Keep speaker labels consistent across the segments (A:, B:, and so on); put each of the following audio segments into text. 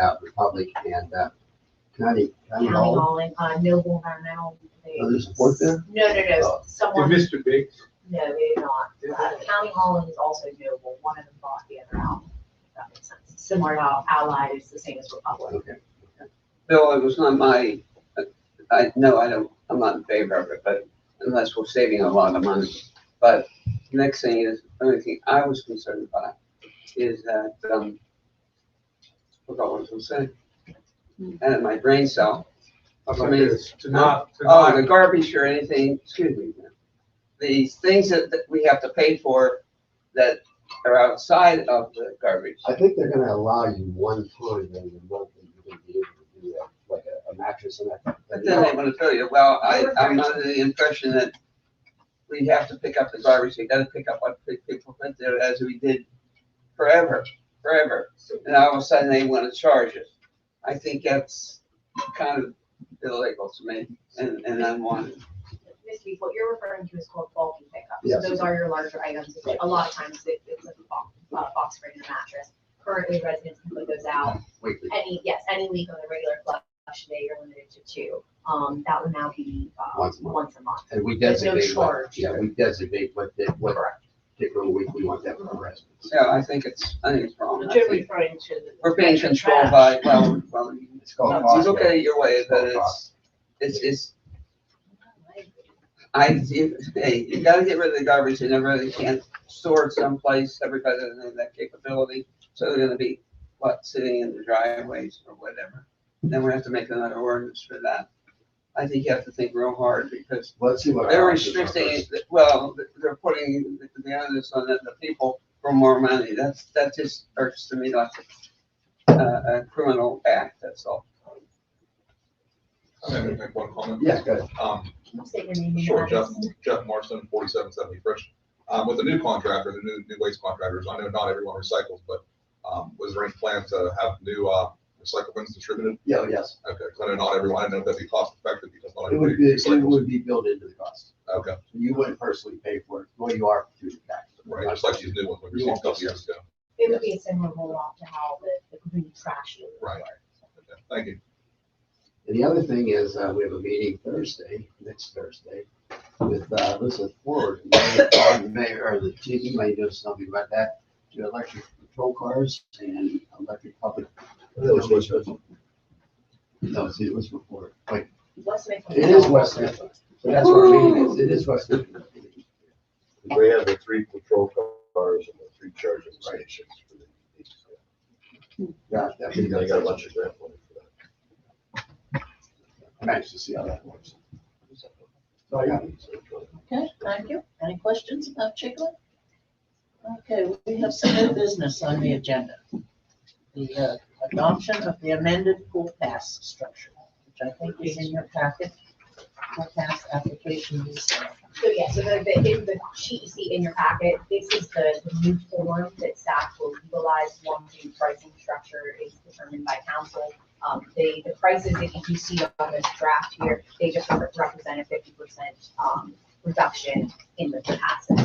A: out Republic and, uh, County, County
B: County
A: Hall.
B: Hall and, uh, Noble Environmental. they-
A: Are they support there?
B: No, no, no,
A: Oh.
B: someone, no,
C: Mr. Biggs,
B: they did not. Uh, County Hall is also Noble, one of them bought the other out, if that makes sense. Similar to how Allied is the same as Republic.
A: Okay.
D: Bill, it was not my, I, no, I don't, I'm not in favor of it, but unless we're saving a lot of money. But next thing is, the only thing I was concerned about is that, um, forgot what I was gonna say. Out of my brain cell.
C: about this, to not, to
D: Oh, the
C: not,
D: garbage or anything, excuse me. ma'am. These things that, that we have to pay for that are outside of the garbage.
A: I think they're gonna allow you one time in the month that you're gonna be able to do that, like a- a mattress and that.
D: But then they want to tell you, well, I, I'm under the impression that we have to pick up the garbage, we gotta pick up what pe- people put there as we did forever, forever. And all of a sudden they want to charge us. I think that's kind of illegal to me and, and unwanted.
B: Ms. Beef, what you're referring to is called bulky pickup. So
A: Yes.
B: those are your larger items.
A: Right.
B: A lot of times it- it's a box, a box spring and a mattress. Currently residents can put those out
A: Wait, wait,
B: Any, yes, any leak on the regular flush day, you're limited to two. Um, that would now be, uh,
A: Once a month.
B: once a month.
A: and we
B: There's no
A: designate what,
B: charge.
A: yeah, we designate what, day- what particular week we want that for our residents.
D: So I think it's, I think it's wrong. I
E: But you're
D: think
E: referring to the.
D: We're being
E: the
D: controlled
E: trash.
D: by, well, well, you
A: It's called.
D: you
A: cost
D: look at it your way,
A: It's
D: but
A: called
D: it's,
A: cost.
D: it's, it's I, you- hey, you gotta get rid of the garbage, you never really can store it someplace, everybody doesn't have that capability. So they're gonna be, what, sitting in the driveways or whatever. Then we have to make another ordinance for that. I think you have to think real hard because
A: Let's see what. our
D: they're
A: options are
D: restricting,
A: first.
D: it- well, they're putting the- the onus on the, the people for more money. That's, that just irks to me like a, a criminal act, that's all.
F: I'm gonna make one comment.
A: Yeah, good.
F: Um,
B: I'm saying your name.
F: sure, Jeff,
B: Madison.
F: Jeff Morrison, forty-seven seventy Frisch. Um, with the new contractor, the new, new waste contractors, I know not everyone recycles, but, um, was there any plan to have new, uh, recycle bins distributed?
A: Yeah, yes.
F: Okay, 'cause I know not everyone, I know that'd be cost effective because not
A: It would
F: everybody
A: be, it
F: recycles.
A: would be built into the cost.
F: Okay,
A: You wouldn't personally pay for it, well, you are through the tax.
F: right, just like these new ones we
A: You
F: received a
A: won't
F: couple
A: get
F: years ago.
B: It would be a similar roll-off to how the, the green trash. units
F: Right.
B: were.
F: Okay, Thank you.
A: And the other thing is, uh, we have a meeting Thursday, next Thursday, with, uh, Elizabeth Ford, the mayor- the mayor, or the chief, you may know something about that, to electric patrol cars and electric public.
C: was
A: No, see, it was before, like,
B: What's the name of
A: it is West Mifflin, so that's where our meeting is, it is West Mifflin.
G: We have the three patrol cars and the three charging stations. for the
A: Yeah, that
G: EVs.
A: meeting
G: They
A: is-
G: got a bunch of grant money for that.
A: I'm anxious to see how that works. So, yeah.
E: Okay, thank you. Any questions about Chiclet? Okay, we have some new business on the agenda. The uh, adoption of the amended pool pass structure, which I think is in your packet. Pool pass application is, uh,
B: So yeah, so the, the, in the sheet you see in your packet, this is the, the new form that staff will utilize once the pricing structure is determined by council. Um, the, the prices that you see on this draft here, they just re- represent a fifty percent, um, reduction in the capacity.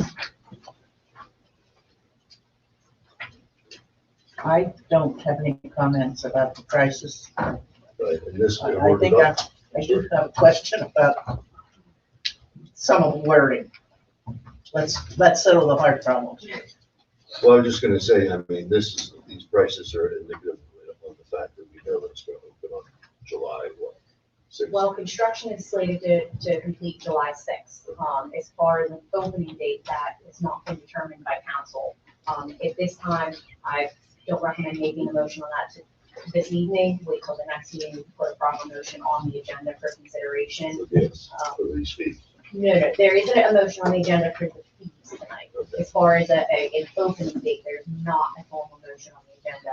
E: I don't have any comments about the prices.
G: Right, and this,
E: I
G: they're
E: I
G: working
E: think
G: on
E: I, I do have a question about some of the wording. Let's, let's settle the hard problems.
G: Well, I'm just gonna say, I mean, this is, these prices are indicative of the fact that we know that it's gonna open on July, what? sixth?
B: Well, construction is slated to, to complete July sixth. Um, as far as an opening date, that has not been determined by council. Um, at this time, I don't recommend making a motion on that to- this evening. Wait till the next meeting to put a proper motion on the agenda for consideration.
G: Yes,
B: Um,
G: for these fees.
B: No, no, there isn't a motion on the agenda for the fees tonight.
G: Okay.
B: As far as a, a, an opening date, there's not a formal motion on the agenda.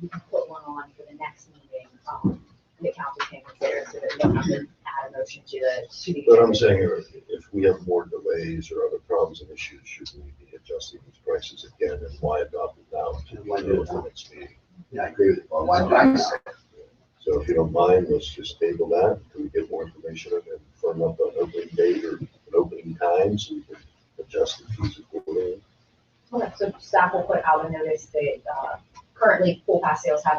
B: We can put one on for the next meeting, um, the council can consider so that we don't have to add a motion to the, to the.
G: But I'm
B: agenda.
G: saying, if- if we have more delays or other problems and issues, should we be adjusting these prices again? And why adopt it now to be done at the next meeting?
A: Yeah, I agree with you. Well, why do I-
G: So if you don't mind, let's just table that, till we get more information and then firm up an opening date or an opening time, so we can adjust the fees accordingly.
B: Okay, So staff will put out a notice that, uh, currently pool pass sales have